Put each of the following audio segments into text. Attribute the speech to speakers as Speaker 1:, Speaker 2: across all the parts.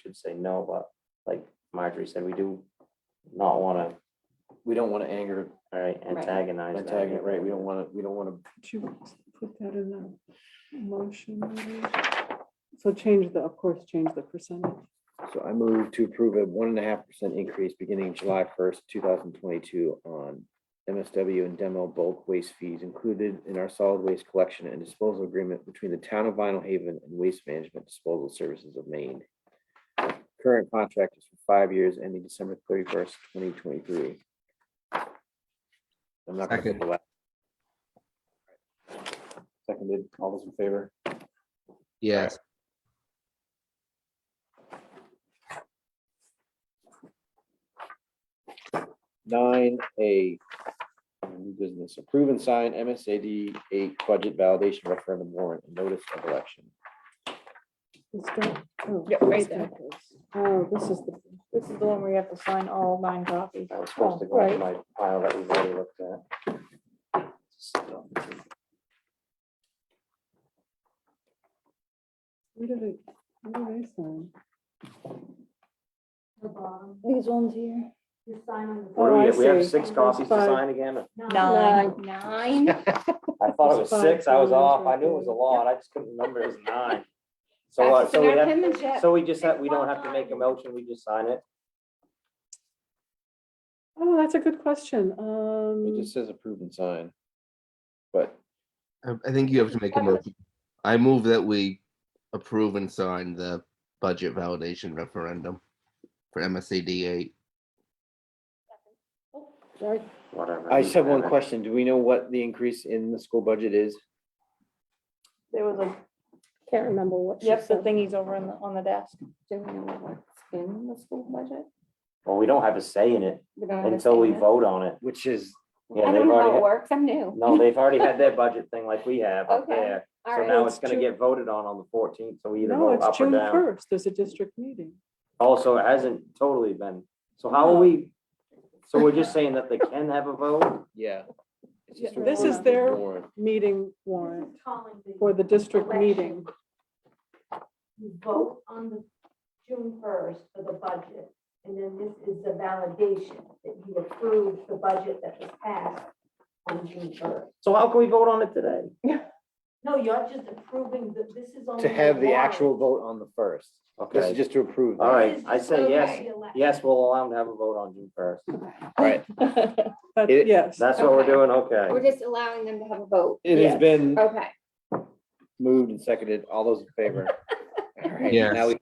Speaker 1: should say no, but like Marjorie said, we do not wanna,
Speaker 2: We don't want to anger
Speaker 1: all right, antagonize. that.
Speaker 2: antagonist, right? We don't want to, we don't want to
Speaker 3: Should we put that in the motion? maybe? So change the, of course, change the percentage.
Speaker 2: So I move to approve a one and a half percent increase beginning July first, two thousand twenty-two on MSW and demo bulk waste fees included in our solid waste collection and disposal agreement between the town of Vinyl Haven and Waste Management Disposal Services of Maine. Current contract is for five years ending December thirty-first, twenty twenty-three. I'm not gonna
Speaker 4: Second.
Speaker 2: pull that. Seconded, all those in favor?
Speaker 4: Yes,
Speaker 2: nine A. New business, approve and sign MSAD eight budget validation referendum warrant and notice of election.
Speaker 3: Is that? oh,
Speaker 5: Yeah, right
Speaker 3: that's
Speaker 5: there.
Speaker 3: not this. Oh, this is the,
Speaker 5: This is the one where you have to sign all nine copies.
Speaker 1: I was supposed to go
Speaker 5: Oh,
Speaker 1: into
Speaker 5: right.
Speaker 1: my pile that we've already looked at.
Speaker 3: Oh,
Speaker 1: So,
Speaker 3: where did it, where did I sign?
Speaker 6: the bottom,
Speaker 5: These ones here.
Speaker 6: the sign on the.
Speaker 3: Oh,
Speaker 1: What do we
Speaker 3: I
Speaker 1: have? We have
Speaker 3: see.
Speaker 1: six copies to
Speaker 3: Five.
Speaker 1: sign again?
Speaker 5: Nine. Nine.
Speaker 1: I thought it was
Speaker 3: There's
Speaker 1: six,
Speaker 3: five
Speaker 1: I was
Speaker 3: times
Speaker 1: off, I
Speaker 3: right
Speaker 1: knew it was a
Speaker 3: there.
Speaker 1: lot, I just couldn't remember it was nine. So, uh, so we
Speaker 6: Grab
Speaker 1: have,
Speaker 6: him and Jeff.
Speaker 1: so we just have, we don't have to make a motion, we just sign it.
Speaker 3: Oh, that's a good question. Um,
Speaker 2: It just says approve and sign. But
Speaker 4: um, I I think you have to make a motion. I move that we approve and sign the budget validation referendum for MSAD eight.
Speaker 3: sorry.
Speaker 1: Whatever.
Speaker 2: I just have one question. Do we know what the increase in the school budget is?
Speaker 5: There was a,
Speaker 3: Can't remember what. she
Speaker 5: yep, the
Speaker 3: said.
Speaker 5: thingies over in the, on the desk.
Speaker 7: Do we know what's in the school budget?
Speaker 1: Well, we don't have a say in it
Speaker 7: We don't
Speaker 1: until we
Speaker 7: understand
Speaker 1: vote on it.
Speaker 2: Which is,
Speaker 7: it.
Speaker 1: Yeah,
Speaker 7: I
Speaker 1: they've
Speaker 7: don't know
Speaker 1: already,
Speaker 7: how it
Speaker 1: had-
Speaker 7: works. I'm new.
Speaker 1: no, they've already had their budget thing like we have
Speaker 3: Oh,
Speaker 1: up
Speaker 7: Okay,
Speaker 1: there.
Speaker 7: All
Speaker 1: So
Speaker 7: right.
Speaker 1: now
Speaker 3: It's
Speaker 1: it's gonna
Speaker 3: Ju-
Speaker 1: get voted on on the fourteenth, so we either
Speaker 3: No,
Speaker 1: vote
Speaker 3: it's
Speaker 1: up or
Speaker 3: June
Speaker 1: down.
Speaker 3: first. There's a district meeting.
Speaker 1: Also, it hasn't totally been, so how are we? So we're just saying that they can have a vote?
Speaker 2: yeah. It's just
Speaker 3: Yeah,
Speaker 2: a
Speaker 3: this
Speaker 2: warrant.
Speaker 3: is their-
Speaker 2: Warrant.
Speaker 3: Meeting
Speaker 6: This
Speaker 3: warrant
Speaker 6: is calling
Speaker 3: for the district meeting.
Speaker 6: You vote on the June first for the budget, and then this is the validation that you approve the budget that was passed on June first.
Speaker 1: So how can we vote on it today?
Speaker 6: No, you're just approving that this is
Speaker 3: oh,
Speaker 6: only.
Speaker 2: To have the
Speaker 6: warrant.
Speaker 2: actual vote on the first. This is
Speaker 1: Okay,
Speaker 2: just to approve.
Speaker 1: all
Speaker 2: that.
Speaker 1: right, I say yes,
Speaker 6: Okay, elect-
Speaker 1: yes, we'll allow them to have a vote on June first.
Speaker 2: Right.
Speaker 3: But
Speaker 2: It-
Speaker 3: yes,
Speaker 1: That's what we're
Speaker 7: Okay.
Speaker 1: doing, okay.
Speaker 7: We're just allowing them to have a vote.
Speaker 2: It has
Speaker 3: Yes.
Speaker 2: been
Speaker 7: Okay.
Speaker 2: moved and seconded. All those in favor? All right,
Speaker 4: Yes.
Speaker 2: now we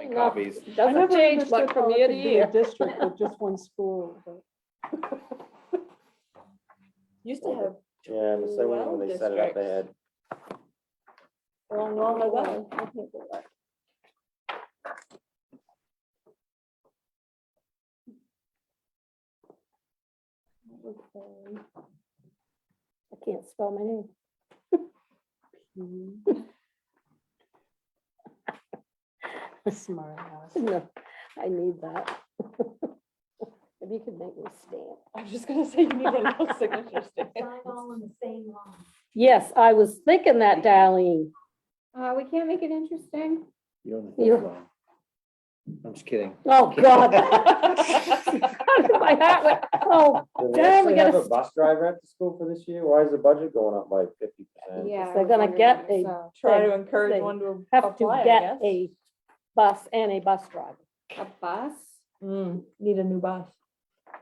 Speaker 2: make copies.
Speaker 3: I
Speaker 5: Doesn't
Speaker 3: never
Speaker 5: change
Speaker 3: understood
Speaker 5: much
Speaker 3: how
Speaker 5: from
Speaker 3: it
Speaker 5: year to
Speaker 3: could be a
Speaker 5: year.
Speaker 3: District with just one school. but-
Speaker 5: Used to have,
Speaker 1: Yeah, the same one when they set it up, they had,
Speaker 5: well, normally well.
Speaker 7: I can't spell my name.
Speaker 3: Mhm. Smart ass.
Speaker 7: No, I need that. If you could make me stamp.
Speaker 5: I was just gonna say, you need one of those signatures.
Speaker 6: Sign all in the same line.
Speaker 8: Yes, I was thinking that, Darlene.
Speaker 7: Uh, we can't make it interesting.
Speaker 2: You don't have
Speaker 8: You-
Speaker 2: to vote. I'm just kidding.
Speaker 8: Oh, God. My heart went- Oh,
Speaker 1: did they
Speaker 8: Damn, we
Speaker 1: actually have
Speaker 8: gotta
Speaker 1: a bus driver at the school for this year? Why is the budget going up by fifty percent?
Speaker 7: Yeah. I
Speaker 8: They're
Speaker 7: was
Speaker 8: gonna
Speaker 7: wondering
Speaker 8: get
Speaker 7: that
Speaker 8: a-
Speaker 7: yourself.
Speaker 5: Try to
Speaker 8: They-
Speaker 5: encourage
Speaker 8: they
Speaker 5: one to
Speaker 8: have to
Speaker 5: apply, I
Speaker 8: get
Speaker 5: guess.
Speaker 8: a bus and a bus driver.
Speaker 7: A bus?
Speaker 5: Mm, Need a new bus.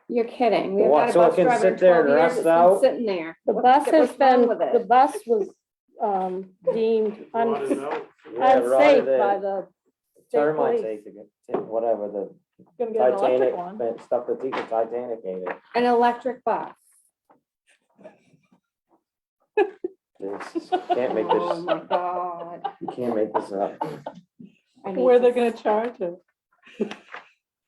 Speaker 7: You're kidding. We've
Speaker 1: What,
Speaker 7: got a
Speaker 1: so it
Speaker 7: bus
Speaker 1: can
Speaker 7: driver in
Speaker 1: sit there and
Speaker 7: 12 years.
Speaker 1: rust
Speaker 7: It's been
Speaker 1: out?
Speaker 7: Sitting there.
Speaker 8: The
Speaker 7: What-
Speaker 8: bus has
Speaker 7: what's wrong
Speaker 8: been,
Speaker 7: with
Speaker 8: the
Speaker 7: it?
Speaker 8: bus was um, deemed un-
Speaker 1: Yeah, right,
Speaker 8: unsafe by
Speaker 1: the
Speaker 8: the state
Speaker 1: termites
Speaker 8: police.
Speaker 1: ate the, whatever, the
Speaker 5: Gonna get an
Speaker 1: Titanic,
Speaker 5: electric one.
Speaker 1: that stuff that the Titanic ate it.
Speaker 7: An electric bus.
Speaker 1: This- Can't make
Speaker 7: Oh, my
Speaker 1: this,
Speaker 7: God.
Speaker 1: you can't make this up.
Speaker 7: I need
Speaker 3: Where they're
Speaker 7: to-
Speaker 3: gonna charge it.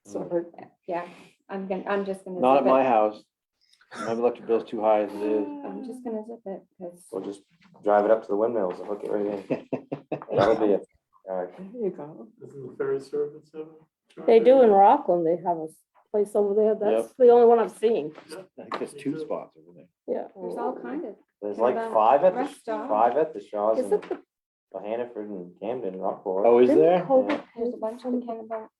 Speaker 3: Sorry.
Speaker 1: Mm.
Speaker 7: Yeah, I'm gonna, I'm just gonna.
Speaker 2: Not at
Speaker 7: zip it.
Speaker 2: my house. My electric bill's too high as it is.
Speaker 7: I'm just gonna zip it because.
Speaker 1: We'll just drive it up to the windmills and hook it right in. That'll be it. All right.
Speaker 3: There you go.
Speaker 9: Doesn't the ferry service have? a
Speaker 8: They do in
Speaker 9: charter?
Speaker 8: Rockland, they have a place over there. That's the only one I've seen.
Speaker 2: I think there's two spots over there.
Speaker 8: Yeah.
Speaker 7: There's all kind of,
Speaker 1: There's
Speaker 7: What
Speaker 1: like
Speaker 7: about
Speaker 1: five at the,
Speaker 7: rest
Speaker 1: five at the Shaws
Speaker 8: Is
Speaker 1: and
Speaker 8: it the
Speaker 1: Well, Hannaford and Camden, Rockport.
Speaker 2: Oh, is
Speaker 7: Didn't
Speaker 2: there?
Speaker 7: COVID- There's a bunch of them talking about